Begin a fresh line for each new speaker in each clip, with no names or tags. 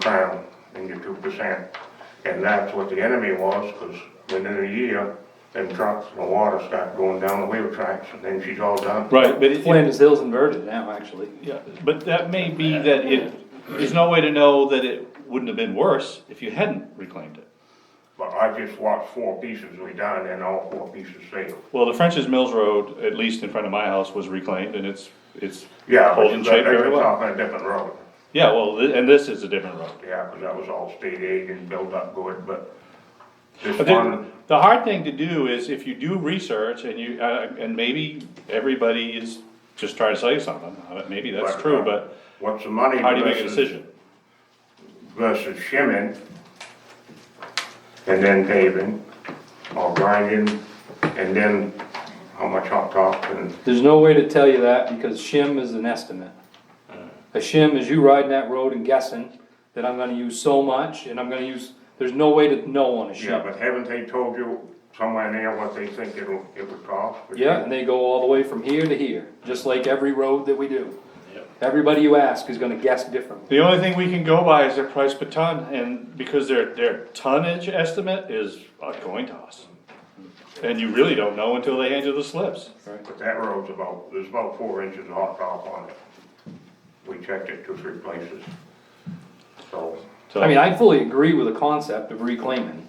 town and your two percent. And that's what the enemy was, because within a year, them trucks and the water start going down the wheel tracks, and then she's all done.
Right, but it,
Flanders Hill's inverted now, actually.
yeah, but that may be that it, there's no way to know that it wouldn't have been worse if you hadn't reclaimed it.
But I just watched four pieces we done, and all four pieces failed.
Well, the French's Mills Road, at least in front of my house, was reclaimed and it's, it's
Yeah, but
holding
you
shape
got,
very
that's
well.
off on a different road.
Yeah, well, thi- and this is a different road.
Yeah, because that was all state aid and built up good, but this
But the,
one,
the hard thing to do is if you do research and you, uh, and maybe everybody is just trying to sell you something, uh, maybe that's
Right.
true, but
what's the money
how do you make a
versus,
decision?
versus shimming? And then paving or grinding, and then how much hot top and,
There's no way to tell you that because shim is an estimate. A shim is you riding that road and guessing that I'm gonna use so much and I'm gonna use, there's no way to know on a
yeah,
shim.
but haven't they told you somewhere near what they think it'll, it would cost?
Yeah, and they go all the way from here to here, just like every road that we do. Everybody you ask is gonna guess differently.
The only thing we can go by is their price per ton, and because their, their tonnage estimate is a coin toss. And you really don't know until they hand you the slips.
But that road's about, there's about four inches of hot top on it. We checked it two, three places. So,
So-
I mean, I fully agree with the concept of reclaiming.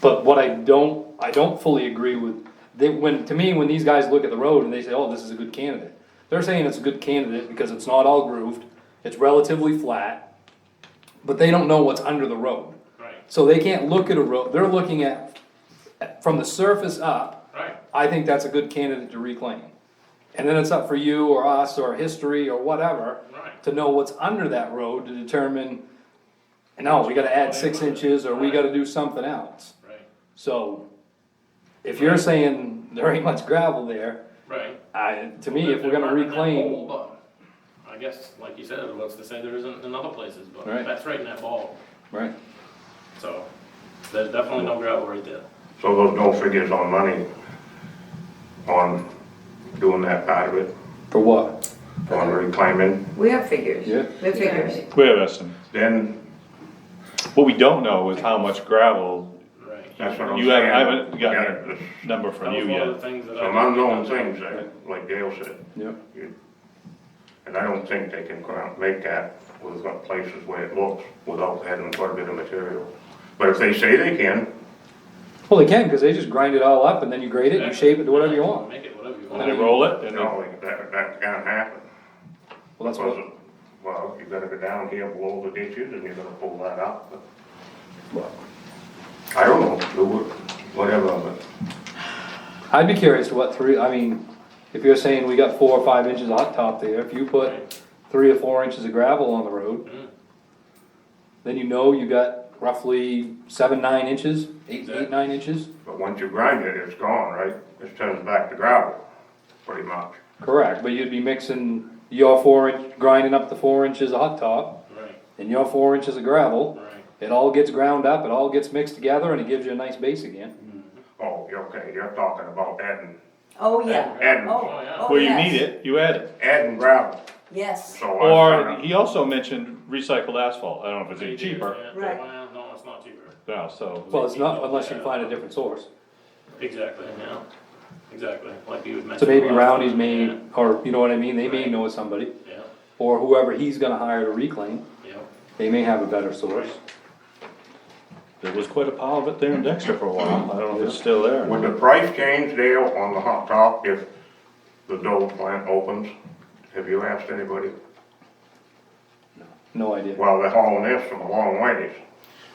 But what I don't, I don't fully agree with, they, when, to me, when these guys look at the road and they say, oh, this is a good candidate. They're saying it's a good candidate because it's not all grooved, it's relatively flat, but they don't know what's under the road.
Right,
So they can't look at a road, they're looking at, from the surface up,
right.
I think that's a good candidate to reclaim. And then it's up for you or us or history or whatever
Right.
to know what's under that road to determine, no, we gotta add six inches or we gotta do something else.
Right,
So if you're saying there ain't much gravel there,
right.
I, to me, if we're
There
gonna
aren't in that
reclaim,
bowl, but I guess, like you said, what's to say there isn't in other places, but
Right.
that's right in that ball,
right,
so there's definitely no gravel right there.
so those no figures on money on doing that part of it,
for what?
on reclaiming.
We have figures.
Yeah.
We have figures.
We have estimates.
Then,
What we don't know is how much gravel,
Right.
that's what I'm saying.
you haven't, I haven't
Yeah,
gotten
there's
a number
That
from
was
you
one of the
yet.
things that I.
Some unknown things, there, like Dale said.
Yep.
You- And I don't think they can come out and make that with what places where it looks without having quite a bit of material. But if they say they can,
Well, they can, cause they just grind it all up and then you grade it, you shape it to whatever you want.
Make it whatever you
And they
want.
roll it, and
Oh.
they-
no, that, that can't happen.
Well, that's what,
Well, well, you gotta go down here below the ditches and you're gonna pull that up, but I don't know, do what- whatever, but
I'd be curious to what three, I mean, if you're saying we got four or five inches of hot top there, if you put three or four inches of gravel on the road, then you know you got roughly seven, nine inches, eight, eight, nine inches,
but once you grind it, it's gone, right? It turns back to gravel, pretty much.
correct, but you'd be mixing your four inch, grinding up the four inches of hot top
Right,
and your four inches of gravel.
right.
It all gets ground up, it all gets mixed together and it gives you a nice base again.
Oh, you're okay, you're talking about adding,
Oh, yeah.
And-
Oh, oh,
where you
yes.
need it, you add it.
adding gravel,
Yes,
so.
Oh,
I
Or,
kinda-
he also mentioned recycled asphalt, I don't know if it's any cheaper
Yeah,
Right.
well, No, it's not cheaper.
now, so.
Well, it's not unless you find a different source.
Exactly, yeah, exactly, like you mentioned.
So maybe
last
Roundy's
time,
may, or you know what I mean, they may know somebody.
Yeah,
or whoever he's gonna hire to reclaim,
yeah,
they may have a better source.
There was quite a pile of it there in Dexter for a while, I don't know if it's still there. or
Would
not.
the price change, Dale, on the hot top if the Dover plant opens? Have you asked anybody?
No idea.
Well, they're hauling this from a long ways.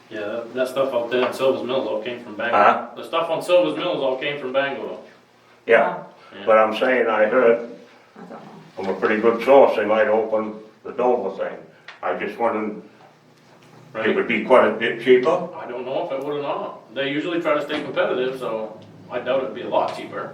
yeah, that, that stuff out there at Silver's Mills all came from
Huh?
Bangor. The stuff on Silver's Mills all came from Bangor.
Yeah, but I'm saying, I heard from a pretty good source, they might open the Dover thing. I just wondered, it
Right.
would be quite a bit cheaper?
I don't know if it would or not. They usually try to stay competitive, so I doubt it'd be a lot cheaper.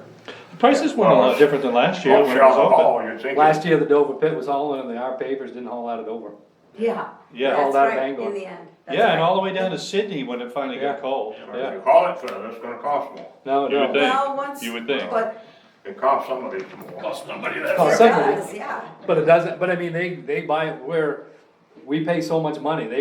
Prices weren't a lot different than last year when it was
Offshore
open.
haul, you'd think,
Last year, the Dover pit was hauling, and the, our papers didn't haul out of Dover.
yeah.
Yeah.
All
That's
that
right,
Bangor.
in the end. That's
Yeah,
right.
and all the way down to Sydney when it finally
Yeah.
got cold.
if
yeah.
you haul it further, it's gonna cost more.
No,
You would
no.
think,
Well, once-
you would think.
But,
It costs somebody some more.
Plus somebody that.
Oh,
it
secondly-
does, yeah.
But it doesn't, but I mean, they, they buy it where, we pay so much money, they